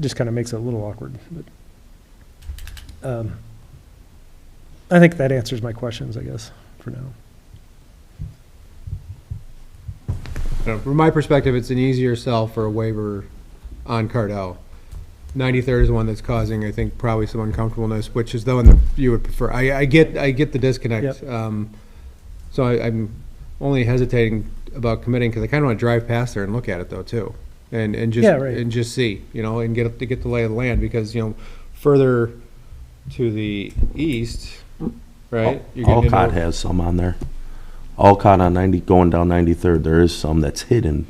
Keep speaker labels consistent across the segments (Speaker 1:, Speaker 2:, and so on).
Speaker 1: just kind of makes it a little awkward, but. um, I think that answers my questions, I guess, for now.
Speaker 2: So From my perspective, it's an easier sell for a waiver on Cardell. 93rd is one that's causing, I think, probably some uncomfortableness, which is the one that you would prefer. I, I get, I get the disconnect. Um, So I- I'm only hesitating about committing because I kind of want to drive past there and look at it though, too. And, and just,
Speaker 1: Yeah, right.
Speaker 2: and just see, you know, and get, to get the lay of the land because, you know, further to the east, right? you're getting into-
Speaker 3: Alcott has some on there. Alcott on ninety, going down ninety-third, there is some that's hidden.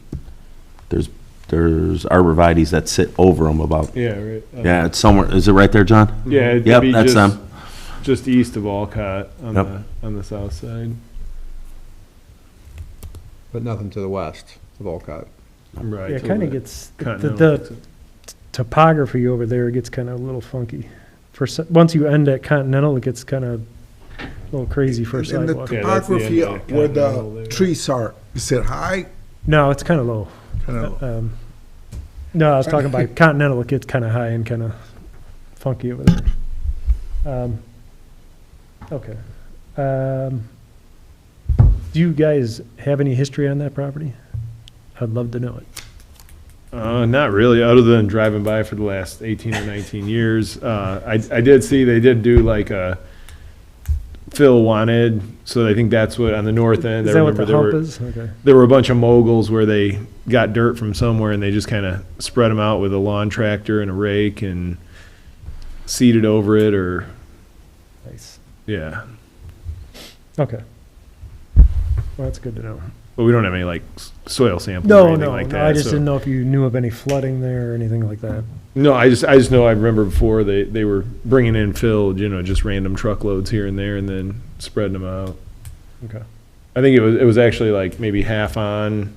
Speaker 3: There's, there's arborvitae's that sit over them about,
Speaker 4: Yeah, right. Uh,
Speaker 3: yeah, it's somewhere, is it right there, John?
Speaker 4: Yeah, it'd
Speaker 3: Yep,
Speaker 4: be
Speaker 3: that's
Speaker 4: just,
Speaker 3: them.
Speaker 4: just east of Alcott on,
Speaker 3: Yep.
Speaker 4: the, on the south side.
Speaker 2: But nothing to the west of Alcott.
Speaker 4: Right.
Speaker 1: Yeah, it
Speaker 4: to
Speaker 1: kind
Speaker 4: the
Speaker 1: of gets, the,
Speaker 4: continental
Speaker 1: the
Speaker 4: exit.
Speaker 1: topography over there gets kind of a little funky. For, s- once you end at Continental, it gets kind of a little crazy for a
Speaker 5: And and the
Speaker 1: sidewalk.
Speaker 4: Yeah, that's the
Speaker 5: topography uh,
Speaker 4: end of the
Speaker 5: where
Speaker 4: continental there.
Speaker 5: the trees are, is it high?
Speaker 1: No, it's kind of low. Um, No, I was talking about Continental, it gets kind of high and kind of funky over there. Um, Okay. Um, Do you guys have any history on that property? I'd love to know it.
Speaker 4: Uh, not really, other than driving by for the last 18 or 19 years. Uh, I, I did see they did do like a Phil wanted, so I think that's what on the north end.
Speaker 1: Is
Speaker 4: I
Speaker 1: that what
Speaker 4: remember
Speaker 1: the
Speaker 4: there
Speaker 1: hump
Speaker 4: were,
Speaker 1: is? Okay.
Speaker 4: there were a bunch of moguls where they got dirt from somewhere and they just kind of spread them out with a lawn tractor and a rake and seeded over it or,
Speaker 1: Nice.
Speaker 4: yeah.
Speaker 1: Okay. Well, that's good to know.
Speaker 4: But we don't have any like s- soil samples or
Speaker 1: No,
Speaker 4: anything
Speaker 1: no,
Speaker 4: like
Speaker 1: no,
Speaker 4: that.
Speaker 1: I just
Speaker 4: so-
Speaker 1: didn't know if you knew of any flooding there or anything like that.
Speaker 4: No, I just I just know I remember before they they were bringing in filled, you know, just random truckloads here and there, and then spreading them out.
Speaker 1: Okay.
Speaker 4: I think it was it was actually like maybe half on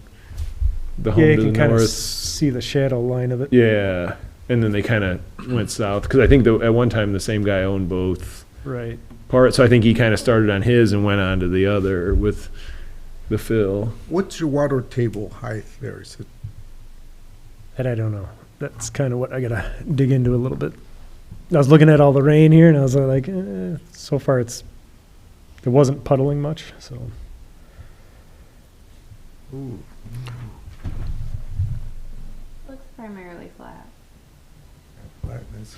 Speaker 4: the home
Speaker 1: Yeah, you
Speaker 4: to the
Speaker 1: can kind of
Speaker 4: north.
Speaker 1: see the shadow line of it.
Speaker 4: Yeah, and then they kind of went south because I think the, at one time the same guy owned both
Speaker 1: Right.
Speaker 4: parts. So I think he kind of started on his and went on to the other with the fill.
Speaker 5: What's your water table height there? Is it
Speaker 1: And I don't know. That's kind of what I gotta dig into a little bit. I was looking at all the rain here and I was like, eh, so far it's, it wasn't puddling much, so.
Speaker 6: Looks primarily flat.
Speaker 5: like this?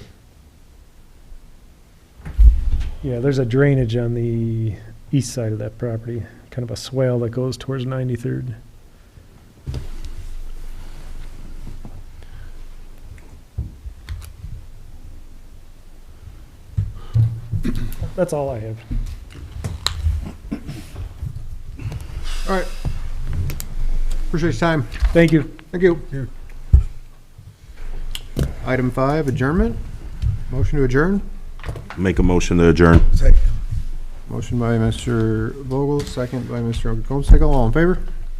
Speaker 1: Yeah, there's a drainage on the east side of that property, kind of a swale that goes towards 93rd. That's all I have.
Speaker 2: All right. Appreciate your time.
Speaker 1: Thank you.
Speaker 2: Thank you. Item five, adjournment. Motion to adjourn.
Speaker 3: Make a motion to adjourn.
Speaker 5: Second.
Speaker 2: Motion by Mr. Vogel, second by Mr. Okeechobee. All in favor?